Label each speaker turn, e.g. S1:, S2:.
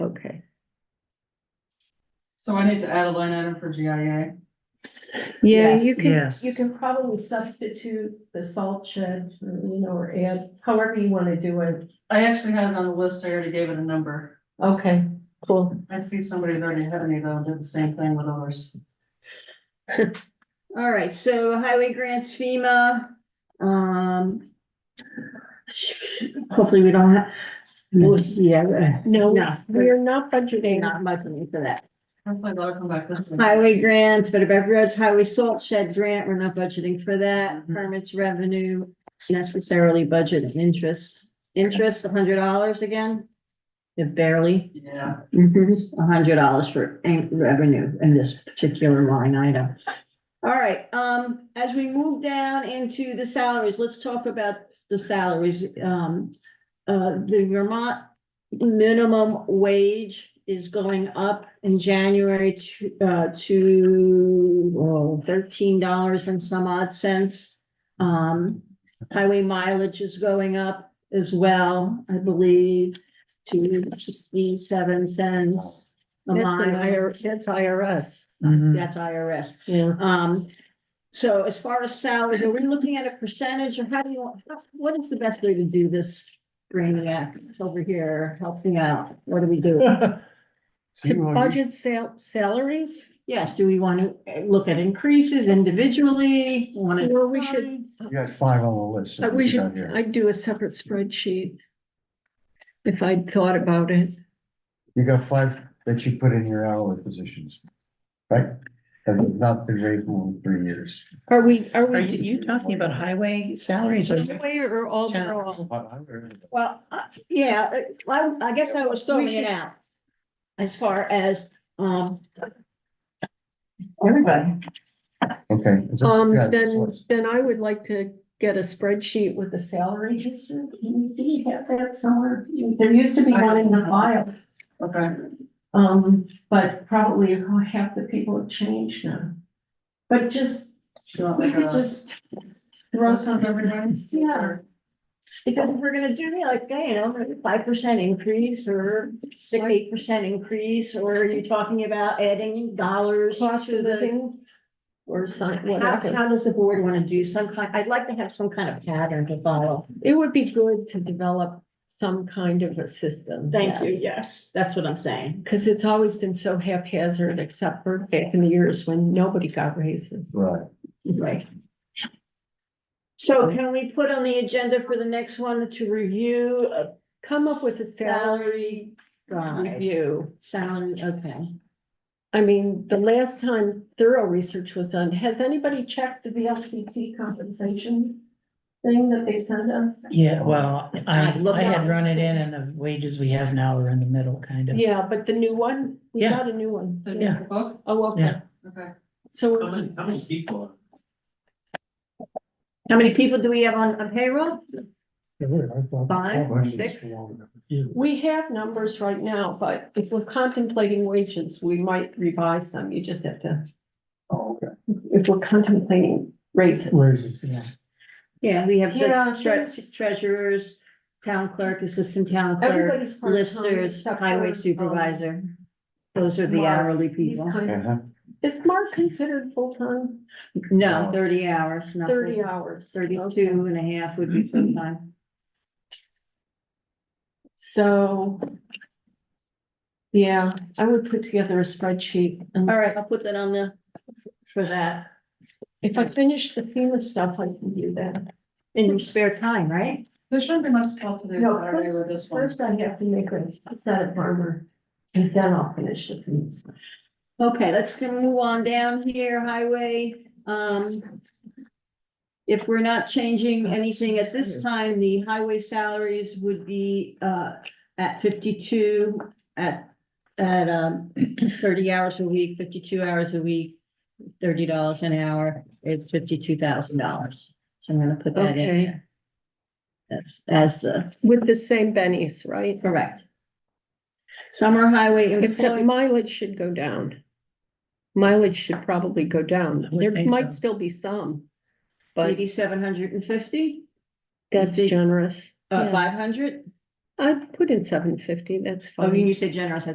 S1: Okay,
S2: So I need to add a line item for GIA.
S1: yeah,
S3: Yes,
S1: you can,
S4: yes.
S1: you can probably substitute the salt shed, you know, or add, however you wanna do it.
S2: I actually had it on the list, I already gave it a number.
S1: Okay, cool.
S2: I see somebody's already had me though, did the same thing with others.
S3: All right, so highway grants FEMA, um. Hopefully we don't have, we'll see, yeah, uh,
S1: No,
S3: No.
S1: we're not budgeting.
S3: not much money for that.
S2: Hopefully that'll come back this week.
S3: Highway grants, Better Back Roads, Highway Salt Shed Grant, we're not budgeting for that. Permits revenue, necessarily budget and interest. Interest, hundred dollars again? Barely,
S2: Yeah,
S3: hundred dollars for an- revenue in this particular line item. All right, um, as we move down into the salaries, let's talk about the salaries. Um, uh, the Vermont minimum wage is going up in January to, uh, to oh, thirteen dollars and some odd cents. Um, highway mileage is going up as well, I believe, to sixty-seven cents a
S1: That's an
S3: mile.
S1: IR, that's IRS.
S5: Mm-hmm.
S4: Mhm.
S3: That's IRS.
S1: Mm. Yeah.
S3: Um, so as far as salaries, are we looking at a percentage or how do you, how- what is the best way to do this? Brainiac over here helping out. What do we do?
S4: So
S1: To
S4: uh, you all-
S1: budget sal- salaries,
S3: Yes, do we want to look at increases individually? Want to?
S1: or we should,
S4: you got five on the list.
S1: I- we
S4: You got
S1: should,
S4: here.
S1: I'd do a separate spreadsheet. If I'd thought about it.
S4: You got five that you put in your hourly positions, right? That have not been raised more than three years.
S1: Are we, are
S5: Are
S1: we?
S5: you, you talking about highway salaries or?
S1: Highway or overall?
S4: I- I heard of it.
S3: Well, uh, yeah, uh, I, I guess I was throwing it out. As far as, um. Everybody.
S4: Okay. it's up-
S1: Um,
S4: yeah, it's
S1: then,
S4: list.
S1: then I would like to get a spreadsheet with the salary history. Do you have that somewhere? There used to be one in the file,
S2: okay.
S1: um, but probably half the people have changed now. But just,
S2: Do you want
S1: we
S2: like
S1: could
S2: a
S1: just,
S2: throw something every day?
S3: Yeah. Because if we're gonna do like, you know, five percent increase or six, eight percent increase, or are you talking about adding dollars
S1: cost
S3: to
S1: of
S3: the?
S1: living or sign,
S3: How,
S1: whatever.
S3: how does the board wanna do some kind, I'd like to have some kind of pattern to follow.
S1: It would be good to develop some kind of a system.
S3: yes. That's what I'm saying.
S1: Because it's always been so haphazard, except for back in the years when nobody got raises.
S4: Right.
S3: Right. So can we put on the agenda for the next one to review a
S1: Come up with a salary
S3: salary? guide?
S1: review.
S3: Salary, okay.
S1: I mean, the last time thorough research was done, has anybody checked the VLCT compensation thing that they sent us?
S5: Yeah, well,
S3: I
S5: I,
S3: look
S5: I
S3: up.
S5: had run it in and the wages we have now are in the middle, kind of.
S1: Yeah, but the new one, we
S5: Yeah.
S1: got a new one.
S2: So you have the book?
S1: Oh, okay,
S5: Yeah.
S2: Okay.
S1: so
S6: How
S1: we're-
S6: many, how many people? are-
S3: How many people do we have on, on payroll? Five,
S4: Questions?
S3: six?
S1: we have numbers right now, but if we're contemplating wages, we might revise them. You just have to,
S4: Oh, okay.
S1: if we're contemplating raises.
S4: Raises.
S5: Yeah.
S3: Yeah, we have
S1: Yeah,
S3: the tre-
S1: there's-
S3: treasurers, town clerk, assistant town clerk,
S1: Everybody's part-time
S3: listers,
S1: except for,
S3: highway
S1: um,
S3: supervisor. Those are the
S1: Mark.
S3: hourly
S1: He's
S3: people.
S1: kind of-
S4: Uh-huh.
S1: Is Mark considered full-time?
S3: No, thirty hours, not
S1: Thirty
S3: thirty,
S1: hours.
S3: thirty-two and a half would be full time.
S1: So. Yeah, I would put together a spreadsheet. and-
S3: All right, I'll put that on the, for that,
S1: If I finish the FEMA stuff, I can do that.
S3: in your spare time, right?
S2: There shouldn't be much to talk to do Saturday with this one.
S1: I have to make a set of armor and then I'll finish the FEMA stuff.
S3: Okay, let's go move on down here, highway, um. If we're not changing anything at this time, the highway salaries would be, uh, at fifty-two, at, at, um, thirty hours a week, fifty-two hours a week, thirty dollars an hour, it's fifty-two thousand dollars. So I'm gonna put that in
S1: Okay.
S3: there. That's, as the,
S1: With the same bennies, right?
S3: correct. Summer highway
S1: Except
S3: employee,
S1: mileage should go down. Mileage should probably go down.
S5: I would
S1: There
S5: think
S1: might
S5: so.
S1: still be some. But
S3: eighty-seven hundred and fifty,
S1: that's generous.
S3: uh,
S1: Yeah.
S3: five hundred?
S1: I'd put in seven fifty, that's fine.
S3: Oh, you said generous, I